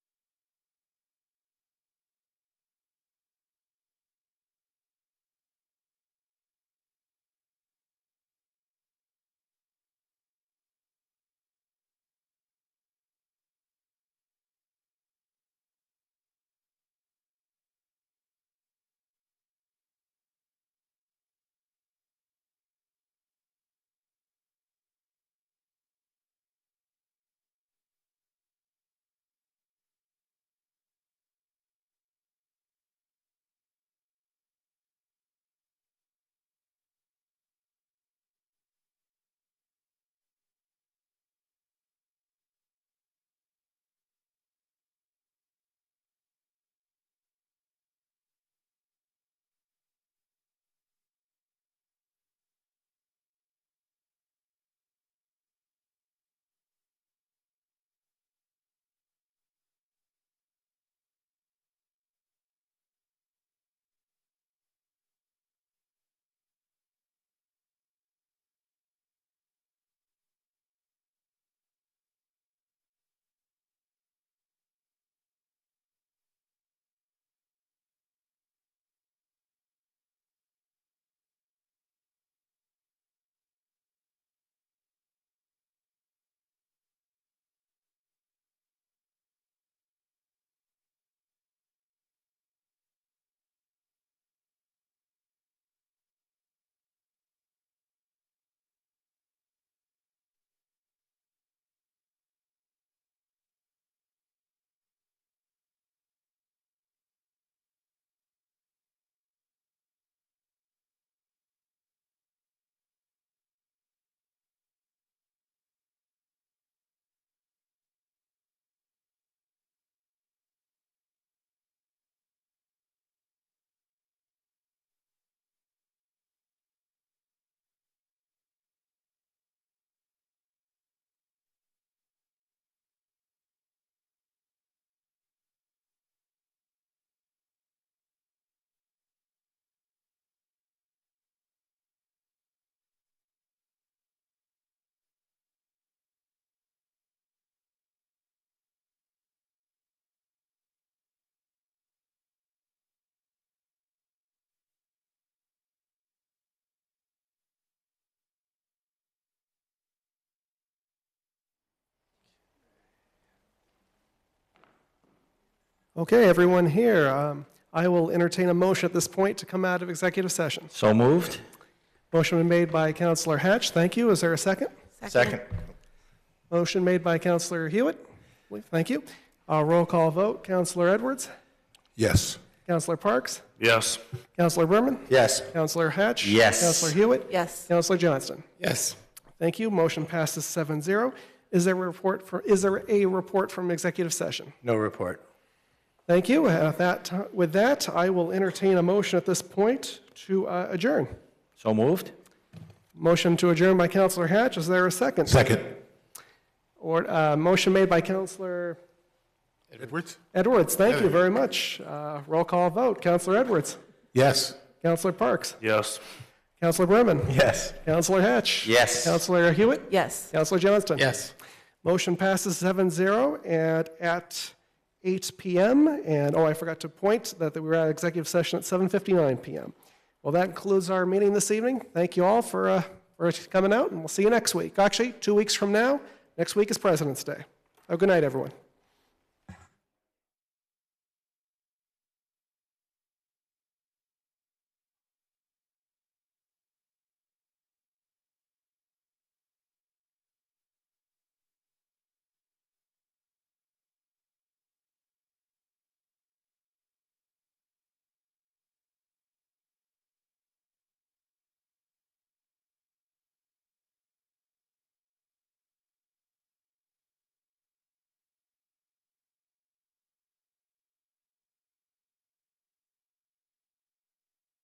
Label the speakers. Speaker 1: Okay, everyone here, um, I will entertain a motion at this point to come out of executive session.
Speaker 2: So moved?
Speaker 1: Motion been made by Counselor Hatch, thank you. Is there a second?
Speaker 2: Second.
Speaker 1: Motion made by Counselor Hewitt, thank you. Uh, Roll call vote, Counselor Edwards,
Speaker 3: Yes.
Speaker 1: Counselor Parks,
Speaker 4: Yes.
Speaker 1: Counselor Berman,
Speaker 2: Yes.
Speaker 1: Counselor Hatch.
Speaker 2: Yes.
Speaker 1: Counselor Hewitt.
Speaker 5: Yes.
Speaker 1: Counselor Johnston.
Speaker 3: Yes.
Speaker 1: Thank you, motion passes 7-0. Is there a report for, is there a report from executive session?
Speaker 3: No report.
Speaker 1: Thank you. At that, with that, I will entertain a motion at this point to uh, adjourn.
Speaker 2: So moved?
Speaker 1: Motion to adjourn by Counselor Hatch, is there a second?
Speaker 3: Second.
Speaker 1: Or, uh, motion made by Counselor
Speaker 3: Edwards?
Speaker 1: Edwards, thank you very much. Uh, Roll call vote, Counselor Edwards,
Speaker 3: Yes.
Speaker 1: Counselor Parks,
Speaker 4: Yes.
Speaker 1: Counselor Berman,
Speaker 3: Yes.
Speaker 1: Counselor Hatch.
Speaker 2: Yes.
Speaker 1: Counselor Hewitt.
Speaker 5: Yes.
Speaker 1: Counselor Johnston.
Speaker 3: Yes.
Speaker 1: Motion passes 7-0 and at 8 PM. And, oh, I forgot to point that we were at executive session at 7:59 PM. Well, that concludes our meeting this evening. Thank you all for, uh, for coming out, and we'll see you next week. Actually, two weeks from now, next week is President's Day. Have a good night, everyone.